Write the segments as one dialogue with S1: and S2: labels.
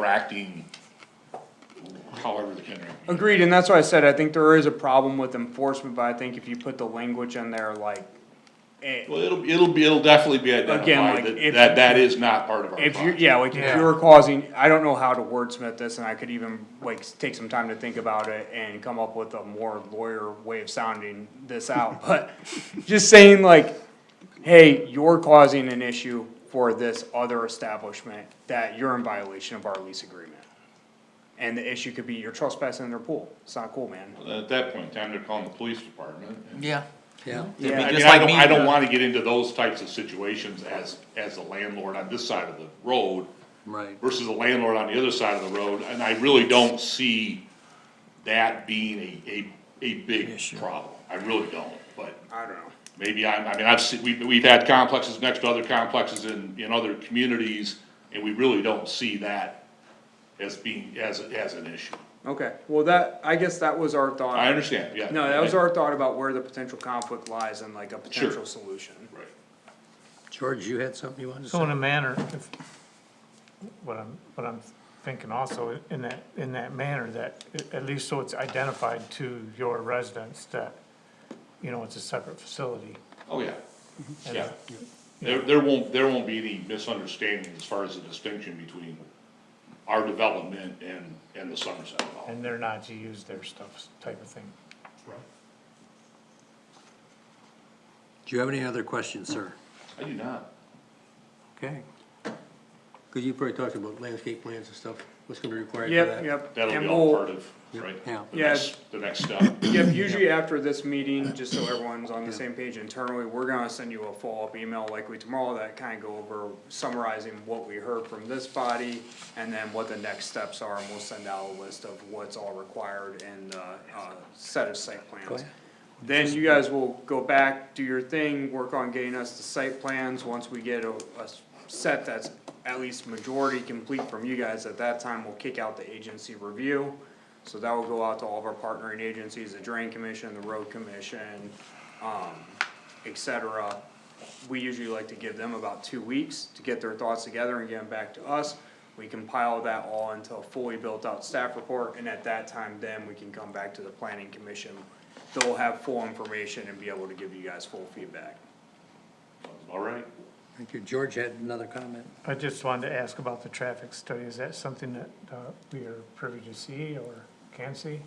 S1: interacting, however they can.
S2: Agreed, and that's why I said, I think there is a problem with enforcement, but I think if you put the language in there like, eh,
S1: Well, it'll, be- it'll be, it'll definitely be
S2: like,
S1: identified
S2: if-
S1: that, that, that is not part of our
S2: if you,
S1: project.
S2: yeah, like if you were causing, I don't know how to wordsmith this, and I could even like s- take some time to think about it and come up with a more lawyer way of sounding this out, but just saying like, hey, you're causing an issue for this other establishment that you're in violation of our lease agreement. And the issue could be you're trespassing their pool. It's not cool, man.
S1: At that point in time, they're calling the police department.
S3: Yeah.
S4: Yeah.
S1: I
S2: Yeah.
S1: mean,
S3: just
S1: I
S3: like
S1: don't,
S3: me,
S1: I don't
S3: uh,
S1: wanna get into those types of situations as, as a landlord on this side of the road
S4: Right.
S1: versus a landlord on the other side of the road, and I really don't see that being a, a, a big
S3: Issue.
S1: problem. I really don't, but.
S2: I don't know.
S1: Maybe I, I mean, I've seen, we've, we've had complexes next to other complexes in, in other communities, and we really don't see that as being, as, as an issue.
S2: Okay, well, that, I guess that was our thought.
S1: I understand, yeah.
S2: No, that was our thought about where the potential conflict lies and like a potential solution.
S1: Right.
S4: George, you had something you wanted to
S5: So in
S4: say?
S5: a manner, if, what I'm, what I'm thinking also, in that, in that manner, that, a- at least so it's identified to your residents that, you know, it's a separate facility.
S1: Oh, yeah,
S5: and-
S1: yeah. There, there won't, there won't be any misunderstanding as far as the distinction between our development and, and the Somerset development.
S5: And they're not to use their stuff, type of thing.
S4: Do you have any other questions, sir?
S1: I do not.
S4: Okay. Cause you probably talked about landscape plans and stuff, what's gonna be required for
S2: Yep,
S4: that?
S2: yep.
S1: That'll be
S2: and
S1: all
S2: we'll-
S1: part of, right?
S4: Yeah.
S1: The
S2: Yeah.
S1: next, the next step.
S2: Yep, usually after this meeting, just so everyone's on the same page internally, we're gonna send you a follow-up email likely tomorrow that kinda go over summarizing what we heard from this body and then what the next steps are, and we'll send out a list of what's all required in the, uh, set of site plans.
S4: ahead.
S2: Then you guys will go back, do your thing, work on getting us the site plans, once we get a, a s- set that's at least majority complete from you guys, at that time, we'll kick out the agency review. So that will go out to all of our partnering agencies, the drain commission, the road commission, um, et cetera. We usually like to give them about two weeks to get their thoughts together and get them back to us. We compile that all into a fully built-out staff report, and at that time, then we can come back to the planning commission. They'll have full information and be able to give you guys full feedback.
S1: All right.
S4: Thank you. George had another comment.
S5: I just wanted to ask about the traffic study, is that something that, uh, we are privy to see or can see?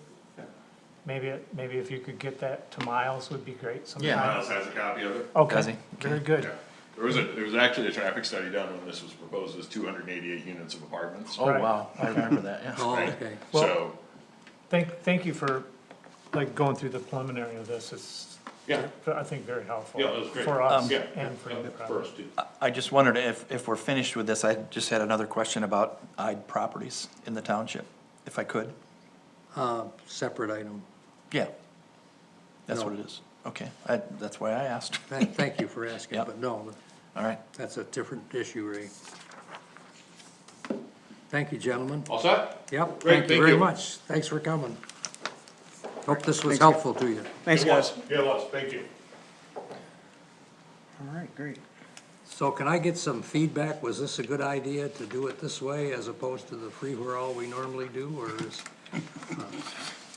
S5: Maybe, it- maybe if you could get that to Miles would be great
S3: Yeah.
S5: sometimes.
S6: Miles has a copy of it.
S3: Does he?
S5: Okay, very good.
S6: Yeah. There was a, there was actually a traffic study done when this was proposed as two hundred and eighty-eight units of apartments.
S3: Oh,
S5: Right.
S3: wow, I remember that, yeah.
S4: Oh,
S6: Right.
S4: okay.
S5: Well-
S6: So,
S5: Thank, thank you for, like, going through the preliminary of this, it's,
S1: Yeah.
S5: I think very helpful.
S1: Yeah, that was great.
S5: For us
S1: Um, Yeah.
S5: and for the project.
S1: First, too.
S3: I just wondered if, if we're finished with this, I just had another question about odd properties in the township, if I could.
S4: Uh, separate item.
S3: Yeah. That's
S4: No.
S3: what it is. Okay, I, that's why I asked.
S4: Th- Thank you for asking,
S3: Yeah.
S4: but no,
S3: All right.
S4: that's a different issue, Ray. Thank you, gentlemen.
S1: All set?
S4: Yep,
S1: Great,
S4: thank you
S1: thank
S4: very
S1: you.
S4: much. Thanks for coming. Hope this was helpful to you.
S2: Thanks, guys.
S1: Yeah, lots, thank you.
S2: All right, great.
S4: So can I get some feedback? Was this a good idea to do it this way as opposed to the free-for-all we normally do, or is? uh,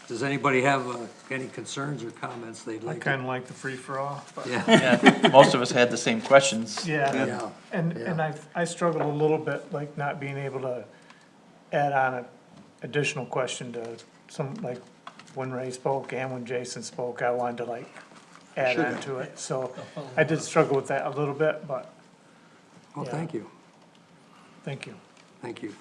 S4: Does anybody have uh, any concerns or comments they'd
S5: I
S4: like? to-
S5: kinda like the free-for-all, but,
S4: Yeah,
S3: Yeah, most of us had the same questions.
S5: yeah,
S4: yeah,
S5: and, and I, I struggled a little bit, like, not being able to add on a additional question to some, like, when Ray spoke and when Jason spoke, I wanted to like add on to it, so I did struggle with that a little bit, but,
S4: well, Oh, thank you,
S5: thank you.
S4: thank you.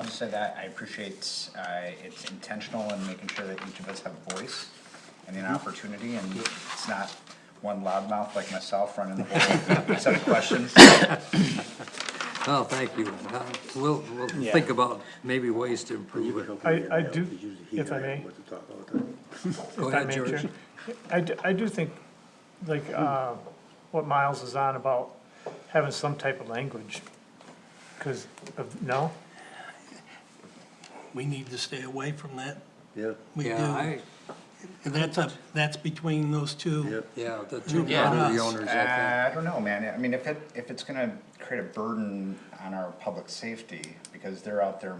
S7: I'll just say that I appreciate, uh, it's intentional in making sure that each of us have a voice and an opportunity, and it's not one loudmouth like myself running the whole set of questions.
S4: Oh, thank you. Uh, We'll, we'll think about maybe ways to improve it.
S5: I, I do, if I may.
S4: Go
S5: if I
S4: ahead,
S5: may,
S4: George.
S5: Chair. I do, I do think, like, uh, what Miles is on about having some type of language, cause of, no?
S8: we need to stay away from that.
S9: Yeah,
S8: We do.
S4: Yeah, I,
S8: And that's up, that's between those two.
S4: yeah, the two
S8: Yeah.
S4: property owners, I
S7: Uh, I don't know, man, I mean, if it, if it's gonna create a burden on our public safety because they're out there